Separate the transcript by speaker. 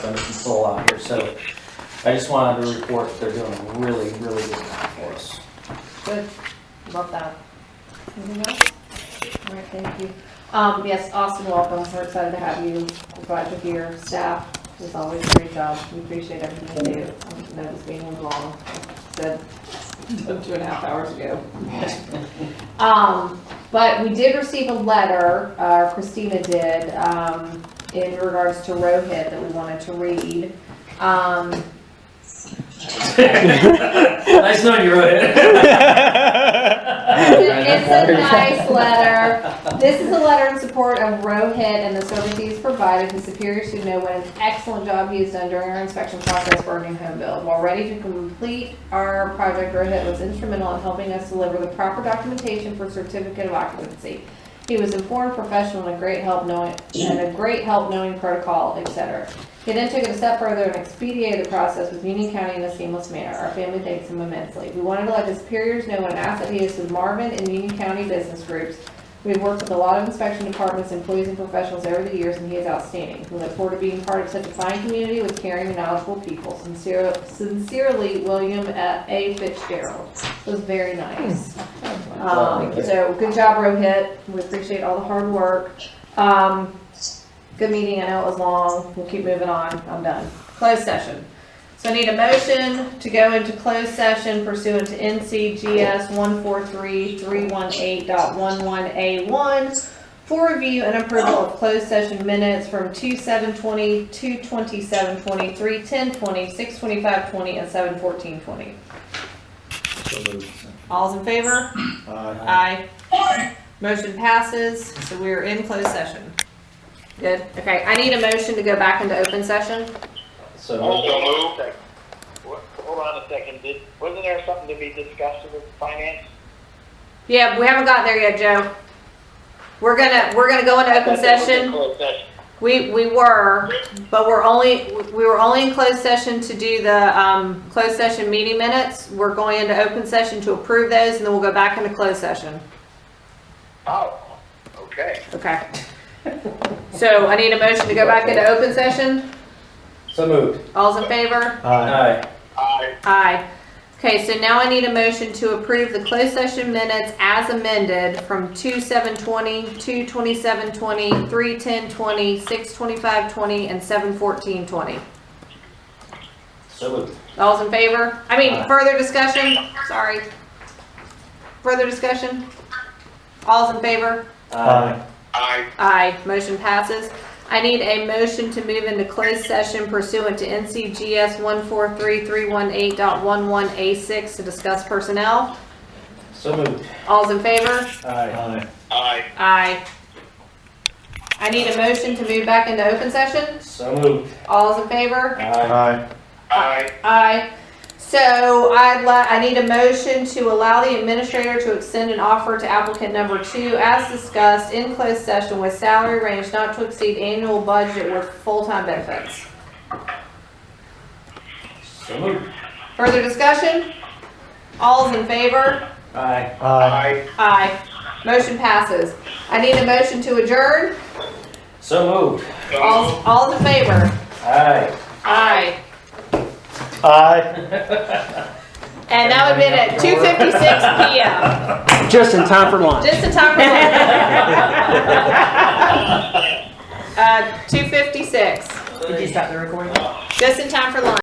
Speaker 1: and soul out here, so I just wanted to report that they're doing a really, really good job for us.
Speaker 2: Good, love that. Anything else? All right, thank you. Um, yes, Austin, welcome, we're excited to have you, we're glad you're here, staff, is always a great job, we appreciate everything you do. I know this meeting was long, said two and a half hours ago. Um, but we did receive a letter, uh, Christina did, um, in regards to Rohit that we wanted to read. Um,
Speaker 1: Nice knowing you,
Speaker 2: It's a
Speaker 1: Rohit.
Speaker 2: nice letter. This is a letter in support of Rohit and the services he's provided his superiors who know what an excellent job he has done during our inspection process for our new home build. While ready to complete our project, Rohit was instrumental in helping us deliver the proper documentation for certificate of occupancy. He was informed, professional, and a great help knowing, and a great help knowing protocol, et cetera. He then took it a step further and expedited the process with Union County in a seamless manner. Our family thanks him immensely. We wanted to let his superiors know what an asset he is to Marvin and Union County business groups. We've worked with a lot of inspection departments, employees, and professionals over the years, and he is outstanding. We look forward to being part of such a fine community with caring and knowledgeable people. Sincere- Sincerely, William uh, A. Fitzgerald. It was very nice.
Speaker 1: Oh,
Speaker 2: Um, So, good job, Rohit. We appreciate all the hard work. Um, Good meeting, I know it was long, we'll keep moving on, I'm done. Closed session. So I need a motion to go into closed session pursuant to NCGS 143318.11A1 for review and approval of closed session minutes from 2720, 22720, 31020, 62520, and 71420. All's in favor? Aye. Motion passes, so we are in closed session. Good, okay, I need a motion to go back into open session.
Speaker 1: So,
Speaker 3: So moved. Hold on a second, did, wasn't there something to be discussed with finance?
Speaker 2: Yeah, we haven't gotten there yet, Joe. We're gonna, we're gonna go into open session.
Speaker 3: Closed session.
Speaker 2: We, we were, but we're only, we were only in closed session to do the, um, closed session meeting minutes. We're going into open session to approve those and then we'll go back into closed session.
Speaker 3: Oh, okay.
Speaker 2: Okay. So I need a motion to go back into open session.
Speaker 1: so moved.
Speaker 2: All's in favor?
Speaker 1: Aye.
Speaker 3: I,
Speaker 2: Aye. Okay, so now I need a motion to approve the closed session minutes as amended from two seven twenty, two twenty-seven twenty, three ten twenty, six twenty-five twenty, and seven fourteen twenty.
Speaker 1: So moved.
Speaker 2: All's in favor? I mean,
Speaker 1: Aye.
Speaker 2: further discussion? Sorry. Further discussion? All's in favor?
Speaker 1: Aye.
Speaker 3: I,
Speaker 2: Aye, motion passes. I need a motion to move into closed session pursuant to NCGS 143318.11A6 to discuss personnel.
Speaker 1: So moved.
Speaker 2: All's in favor?
Speaker 1: Aye.
Speaker 3: I,
Speaker 2: Aye. I need a motion to move back into open session.
Speaker 1: So moved.
Speaker 2: All's in favor?
Speaker 1: Aye.
Speaker 3: I,
Speaker 2: Aye. So I'd li, I need a motion to allow the administrator to extend an offer to applicant number two as discussed in closed session with salary range not to exceed annual budget with full-time benefits.
Speaker 1: So moved.
Speaker 2: Further discussion? All's in favor?
Speaker 1: Aye.
Speaker 3: I,
Speaker 2: Aye. Motion passes. I need a motion to adjourn.
Speaker 1: So moved.
Speaker 2: All,
Speaker 3: so
Speaker 2: all's in favor?
Speaker 1: Aye.
Speaker 2: Aye.
Speaker 4: Aye.
Speaker 2: And that would have been at two fifty-six PM,
Speaker 4: Just in time for lunch.
Speaker 2: just in time for lunch. Uh, two fifty-six,
Speaker 1: Did you stop the recording?
Speaker 2: Uh, just in time for lunch.